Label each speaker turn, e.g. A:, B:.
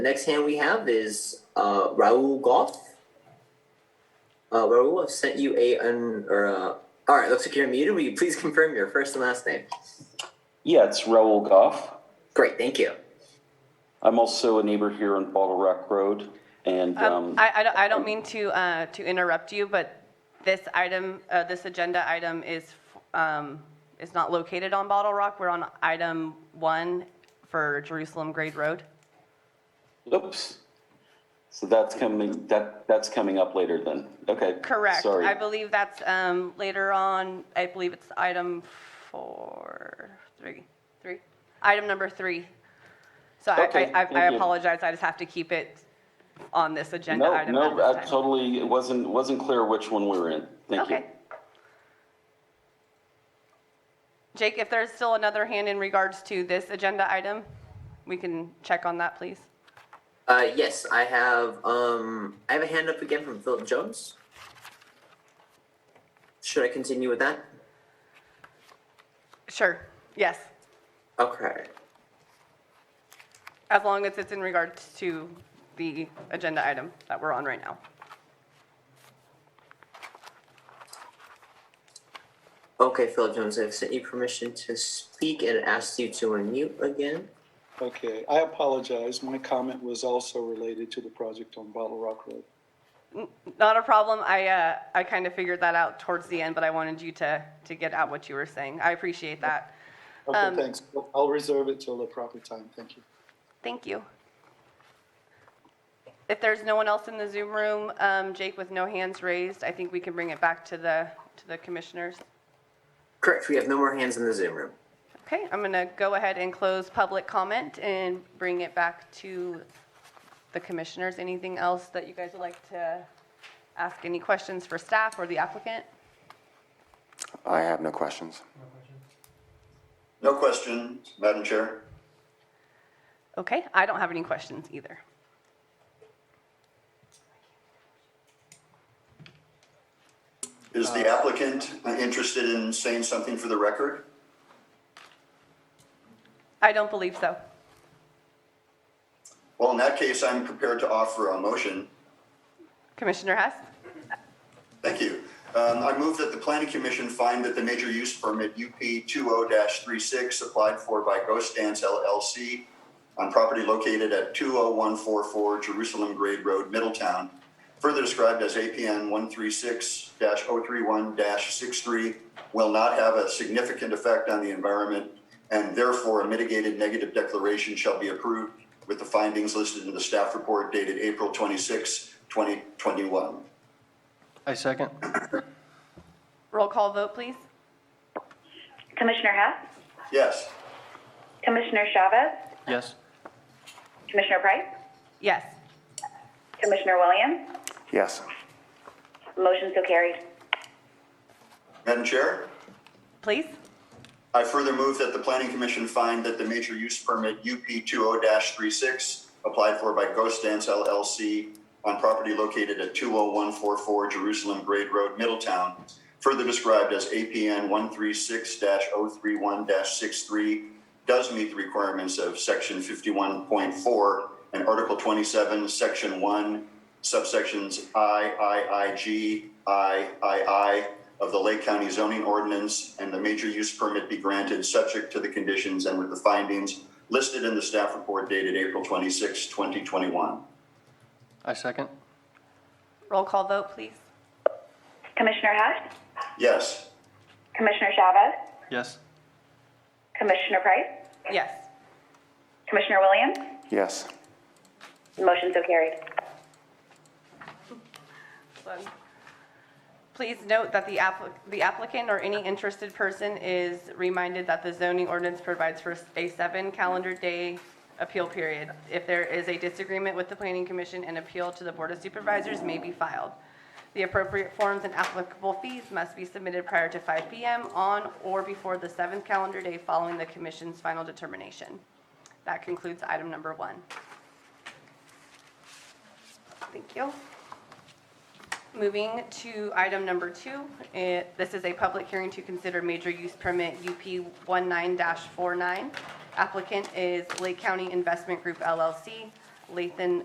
A: The next hand we have is uh, Raul Goff. Uh, Raul, I've sent you a un, or uh, all right. Looks like you're muted. Will you please confirm your first and last name?
B: Yeah, it's Raoul Goff.
A: Great, thank you.
B: I'm also a neighbor here on Bottle Rock Road, and
C: Um,
B: um,
C: I, I don't, I don't mean to, uh, to interrupt you, but this item, uh, this agenda item is, um, is not located on Bottle Rock. We're on item one for Jerusalem Grade Road.
B: oops. So that's coming, that, that's coming up later then. Okay.
C: Correct.
B: Sorry.
C: I believe that's, um, later on, I believe it's item four, three, three, item number three. So I,
B: Okay,
C: I- I, I
B: thank you.
C: apologize. I just have to keep it on this agenda
B: No,
C: item. at
B: no,
C: this
B: I
C: time.
B: totally, it wasn't, wasn't clear which one we were in. Thank you.
C: Okay. Jake, if there's still another hand in regards to this agenda item, we can check on that, please.
A: Uh, yes, I have. Um, I have a hand up again from Philip Jones. Should I continue with that?
C: Sure, yes,
A: Okay.
C: as long as it's in regards to the agenda item that we're on right now.
A: Okay, Philip Jones, I've sent you permission to speak and asked you to unmute again.
D: Okay, I apologize. My comment was also related to the project on Bottle Rock Road.
C: Not a problem, I, uh, I kind of figured that out towards the end, but I wanted you to, to get out what you were saying. I appreciate that. Um,
D: Okay, thanks. I'll reserve it till the proper time. Thank you.
C: Thank you. If there's no one else in the Zoom room, um, Jake, with no hands raised, I think we can bring it back to the, to the commissioners.
A: Correct. We have no more hands in the Zoom room.
C: Okay, I'm going to go ahead and close public comment and bring it back to the commissioners. Anything else that you guys would like to ask, any questions for staff or the applicant?
E: I have no questions.
F: No questions, Madam Chair.
C: Okay, I don't have any questions either.
F: Is the applicant interested in saying something for the record?
C: I don't believe so.
F: Well, in that case, I'm prepared to offer a motion.
C: Commissioner Hess?
F: Thank you. Um, I move that the planning commission find that the major use permit UP 20-36 applied for by Ghost Dance LLC on property located at 20144 Jerusalem Grade Road, Middletown, further described as APN 136-031-63, will not have a significant effect on the environment, and therefore a mitigated negative declaration shall be approved with the findings listed in the staff report dated April 26, 2021.
G: I second.
C: Roll call vote, please.
H: Commissioner Hess,
F: Yes.
H: Commissioner Chavez,
G: Yes.
H: Commissioner Price,
C: Yes.
H: Commissioner Williams,
E: Yes.
H: motion so carried.
F: Madam Chair,
C: Please?
F: I further move that the Planning Commission find that the major use permit UP 20-36 applied for by Ghost Dance LLC on property located at 20144 Jerusalem Grade Road, Middletown, further described as APN 136-031-63, does meet the requirements of Section 51.4 and Article 27, Section 1, subsections I, I, I, G, I, I, I of the Lake County zoning ordinance and the major use permit be granted subject to the conditions and with the findings listed in the staff report dated April 26, 2021.
G: I second.
C: Roll call vote, please.
H: Commissioner Hess,
F: Yes.
H: Commissioner Chavez,
G: Yes.
H: Commissioner Price,
C: Yes.
H: Commissioner Williams,
E: Yes.
H: motion so carried.
C: Excellent. Please note that the applicant, the applicant or any interested person is reminded that the zoning ordinance provides for a seven calendar day appeal period. If there is a disagreement with the planning commission, an appeal to the board of supervisors may be filed. The appropriate forms and applicable fees must be submitted prior to five PM on or before the seventh calendar day following the commission's final determination. That concludes item number one. Thank you. Moving to item number two, it- this is a public hearing to consider major use permit UP 19-49. Applicant is Lake County Investment Group LLC, Lathan